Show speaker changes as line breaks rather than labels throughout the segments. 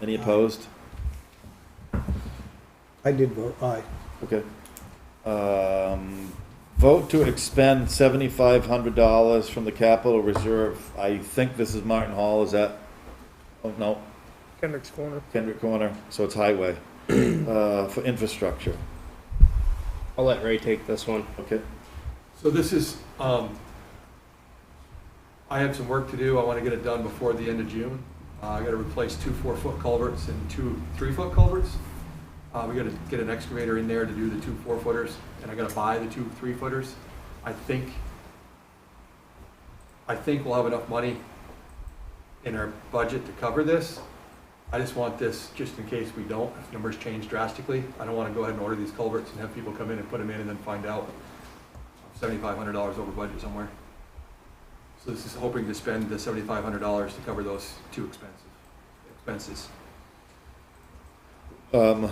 Any opposed?
I did vote aye.
Okay. Um, vote to expend seventy-five hundred dollars from the capital reserve. I think this is Martin Hall, is that? Oh, no,
Kendrick's Corner.
Kendrick Corner, so it's highway, uh, for infrastructure,
I'll let Ray take this one.
okay?
So this is, um, I have some work to do. I want to get it done before the end of June. Uh, I got to replace two four-foot culverts and two three-foot culverts. Uh, we got to get an excavator in there to do the two four-footers, and I got to buy the two three-footers. I think, I think we'll have enough money in our budget to cover this. I just want this, just in case we don't, if numbers change drastically. I don't want to go ahead and order these culverts and have people come in and put them in and then find out seventy-five hundred dollars over budget somewhere. So this is hoping to spend the seventy-five hundred dollars to cover those two expenses, expenses.
Um,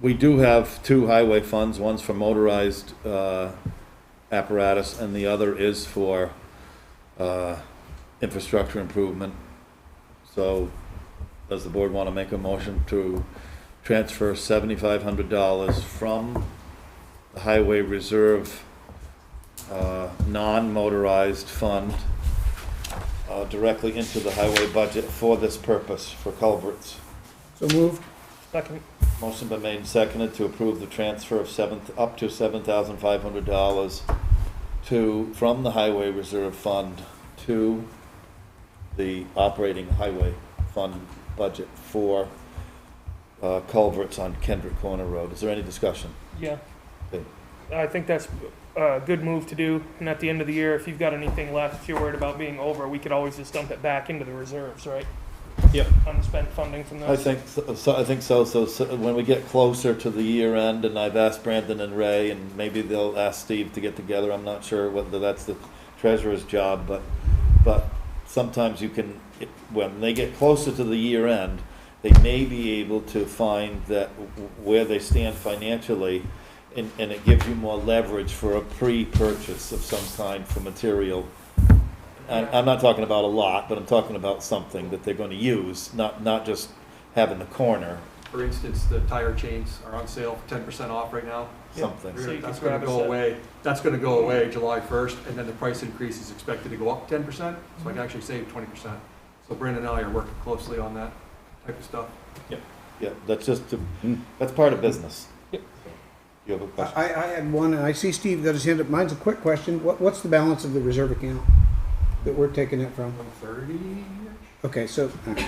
we do have two highway funds, one's for motorized, uh, apparatus, and the other is for, uh, infrastructure improvement. So, does the board wanna make a motion to transfer seventy-five hundred dollars from the highway reserve, uh, non-motorized fund, uh, directly into the highway budget for this purpose, for culverts?
So moved.
Second.
Motion been made and seconded to approve the transfer of seven, up to seven thousand five hundred dollars to, from the highway reserve fund to the operating highway fund budget for uh, culverts on Kendrick Corner Road. Is there any discussion?
Yeah.
Okay.
I think that's a good move to do. And at the end of the year, if you've got anything left, if you're worried about being over, we could always just dump it back into the reserves, right?
Yep.
Unspent funding from those.
I think, so- so, I think so, so, so when we get closer to the year end, and I've asked Brandon and Ray, and maybe they'll ask Steve to get together, I'm not sure whether that's the treasurer's job, but, but sometimes you can, it- when they get closer to the year end, they may be able to find that w- where they stand financially, and, and it gives you more leverage for a pre-purchase of some kind for material I- I'm not talking about a lot, but I'm talking about something that they're going to use, not, not just having the corner,
For instance, the tire chains are on sale for ten percent off right now.
something.
So you
That's
could
gonna
grab a
go
set.
away, that's gonna go away July first, and then the price increase is expected to go up ten percent, so I
Mhm.
can actually save twenty percent. So Brandon and I are working closely on that type of stuff.
Yeah, that's just, to- that's part of business.
Yep.
You have a
I,
question?
I had one, and I see Steve got his hand up. Mine's a quick question. What, what's the balance of the reserve account that we're taking it from?
One thirty?
Okay, so all right.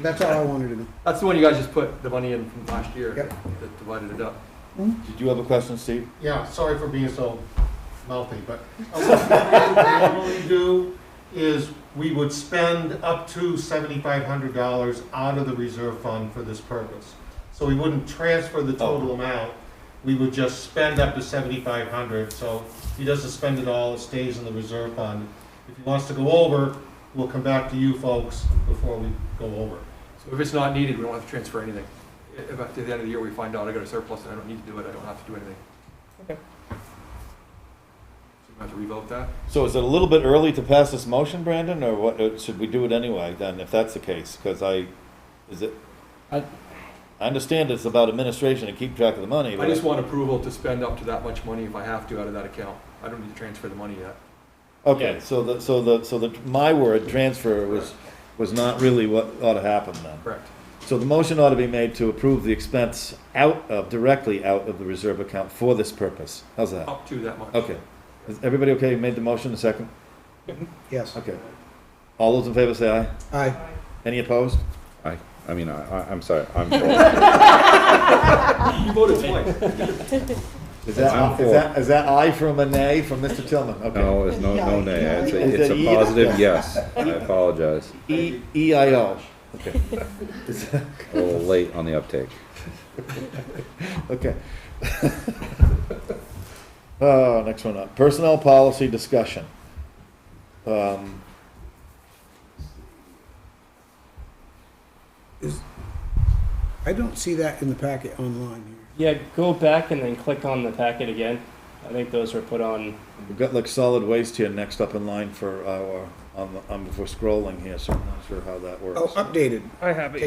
that's all I wanted to know.
That's the one you guys just put the money in from last year.
Yep.
That divided it up.
Did you have a question, Steve?
Yeah, sorry for being so mouthy, but what we normally do is we would spend up to seventy-five hundred dollars out of the reserve fund for this purpose. So we wouldn't transfer the total
Oh.
amount, we would just spend up to seventy-five hundred, so he doesn't spend it all, it stays in the reserve fund. If he wants to go over, we'll come back to you folks before we go over.
So if it's not needed, we don't have to transfer anything. I- If at the end of the year we find out I got a surplus and I don't need to do it, I don't have to do anything.
Okay.
So you have to revote that?
So is it a little bit early to pass this motion, Brandon, or what, uh, should we do it anyway then, if that's the case? Because I, is it? I
I-
understand it's about administration and keep track of the money,
I
but
just want approval to spend up to that much money if I have to out of that account. I don't need to transfer the money yet.
Okay,
Yeah.
so the, so the, so the, my word, transfer, was, was not really what ought to happen then.
Correct.
So the motion ought to be made to approve the expense out of, directly out of the reserve account for this purpose. How's that?
Up to that much.
Okay. Is everybody okay? You made the motion, a second?
Yes,
Okay. All those in favor say aye.
aye.
Any opposed?
I, I mean, I, I- I'm sorry, I'm for.
You voted twice.
Is that,
I'm
is
for.
that, is that aye from a nay from Mr. Tillman? Okay.
No, it's no, no nay. It's
Is
a, it's
that
a
either?
positive yes. I apologize.
E, EIO. Okay. Is-
A little late on the uptake.
Okay. Uh, next one up, personnel policy discussion. Um,
I don't see that in the packet online here.
Yeah, go back and then click on the packet again. I think those were put on.
We've got like solid waste here next up in line for our, on the, um, if we're scrolling here, so I'm not sure how that works.
Oh, updated.
I have it.